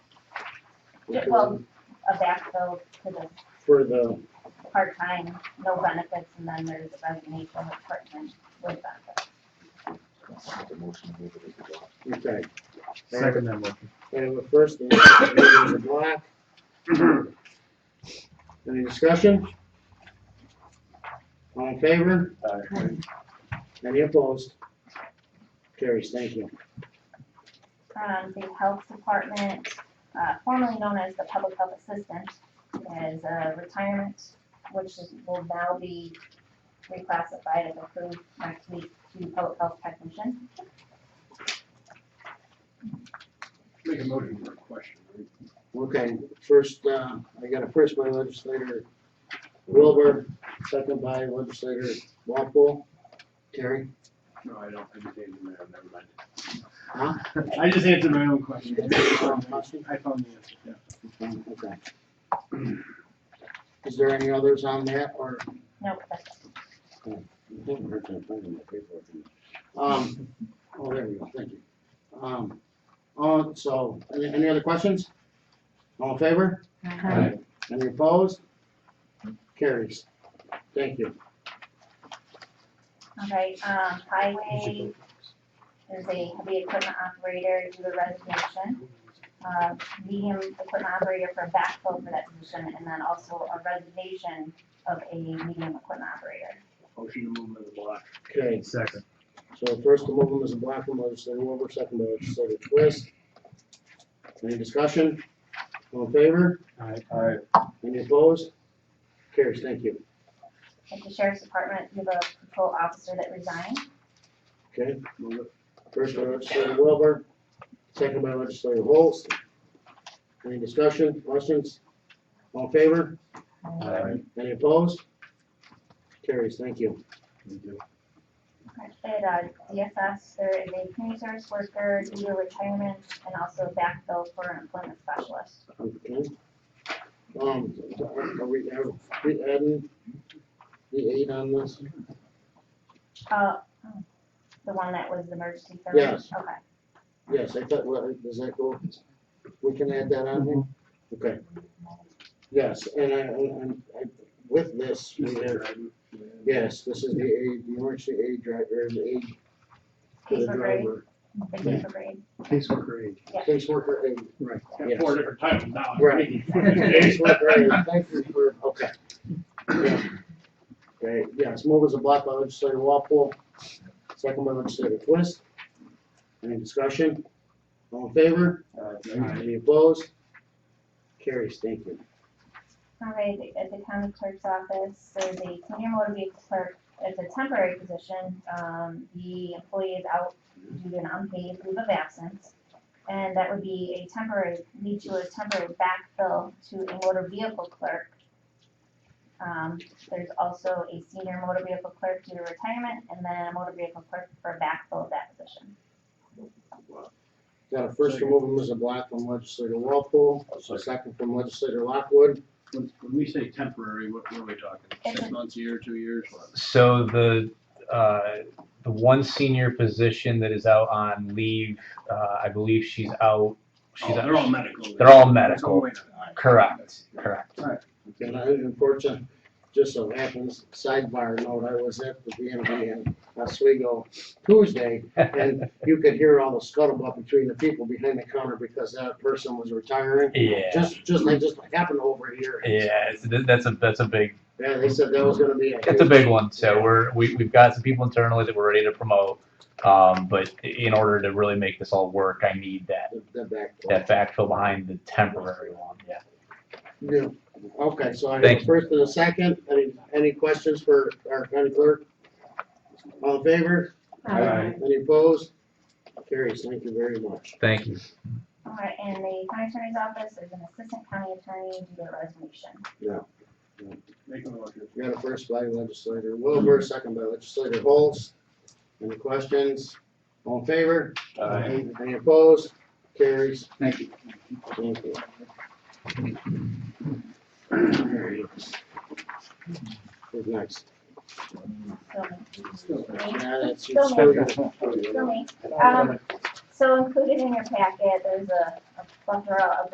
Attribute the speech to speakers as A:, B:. A: Yeah, well, a backfill to the
B: um, For the,
A: part-time, no benefits, and then there's a resignation of part-time with benefits.
B: okay.
C: Second that motion.
B: I have a first and a second, Mr. Black. Any discussion? All in favor? Any opposed? Carries, thank you.
A: Um, the health department, uh, formerly known as the public health assistant, is a retirement, which is- will now be reclassified and approved next week to public health technician.
D: Make a motion for a question. right?
B: Okay, first, uh, I got a first by legislator Wilbur, second by legislator Walpole. Terry?
D: No, I don't, I just answered my own, never mind.
B: Huh?
D: I just answered my own question. I found the answer, yeah.
B: Um, Okay. Is there any others on that, or?
A: No, that's
B: I think we're gonna find them, okay, for them. Um, oh, there we go, thank you. Um, uh, so, any, any other questions? All in favor?
D: Aye.
B: Any opposed? Carries. Thank you.
A: All right, um, highway, there's a heavy equipment operator due to resignation. Uh, medium equipment operator for backfill for that position, and then also a resignation of a medium equipment operator.
D: Motion to move to the block.
B: Okay,
C: Second.
B: so first the movement is a black from legislator Wilbur, second by legislator Twist. Any discussion? All in favor?
C: Aye.
D: Aye.
B: Any opposed? Carries, thank you.
A: At the sheriff's department, you have a patrol officer that resigned.
B: Okay,
D: Move it.
B: First by legislator Wilbur, second by legislator Holst. Any discussion, questions? All in favor?
C: Aye.
B: Any opposed? Carries, thank you.
A: At, uh, DSS, there is a community service worker due to retirement, and also backfill for an employment specialist.
B: Okay. Um, are we, are we adding the eight on this?
A: Uh, the one that was the emergency service?
B: Yes.
A: Okay.
B: Yes, I thought, well, does that go? We can add that on here? Okay. Yes, and I, and I, with this, we have, yes, this is the aid, the emergency aid driver, the aid for
A: Case
B: the
A: for grade,
B: driver.
A: the case for grade.
C: Caseworker aid.
B: Caseworker aid. Right.
D: Got Four different titles now.
B: Right. Caseworker aid, thank you for, okay. Yeah. Okay, yes, move as a block by legislator Walpole, second by legislator Twist. Any discussion? All in favor?
C: Aye.
B: Any opposed? Carries, thank you.
A: All right, at the county clerk's office, there's a senior motor vehicle clerk, it's a temporary position, um, the employee is out due to an unpaid leave of absence. And that would be a temporary, lead to a temporary backfill to a motor vehicle clerk. Um, there's also a senior motor vehicle clerk due to retirement, and then a motor vehicle clerk for backfill of that position.
B: Got a first from Mr. Black from legislator Walpole, a second from legislator Lockwood.
D: When when we say temporary, what what are we talking? Six
A: It's-
D: months, a year, two years? what?
E: So the, uh, the one senior position that is out on leave, uh, I believe she's out,
D: Oh,
E: she's
D: They're all
E: out,
D: medical.
E: They're all
D: That's
E: medical.
D: way to- all right.
E: correct, correct.
B: And I, unfortunately, just so happens, sidebar note, I was at the VMB in Oswego Tuesday, and you could hear all the scuttlebutt between the people behind the counter because that person was retiring.
E: Yeah,
B: Just, just like, just like happened over here.
E: yeah, it's- th- that's a, that's a big,
B: Yeah, they said that was gonna be a.
E: it's a big one, so we're, we, we've got some people internally that we're ready to promote. Um, but in order to really make this all work, I need that,
B: The- the back door.
E: that backfill behind the temporary one, yeah.
B: Yeah, okay, so I have
E: Thank
B: a first and a second, any, any questions for our county clerk? All in favor?
C: Aye.
B: Any opposed? Carries, thank you very much.
E: Thank you.
A: All right, and the county attorney's office, there's an assistant county attorney due to resignation.
D: Make a motion.
B: We got a first by legislator Wilbur, second by legislator Holtz. Any questions? All in favor? Any opposed? Carries,
C: Thank you.
B: thank you. Who's next?
A: So, me,
B: Yeah, that's-
A: Still so me. Um, so included in your packet, there's a a plethora of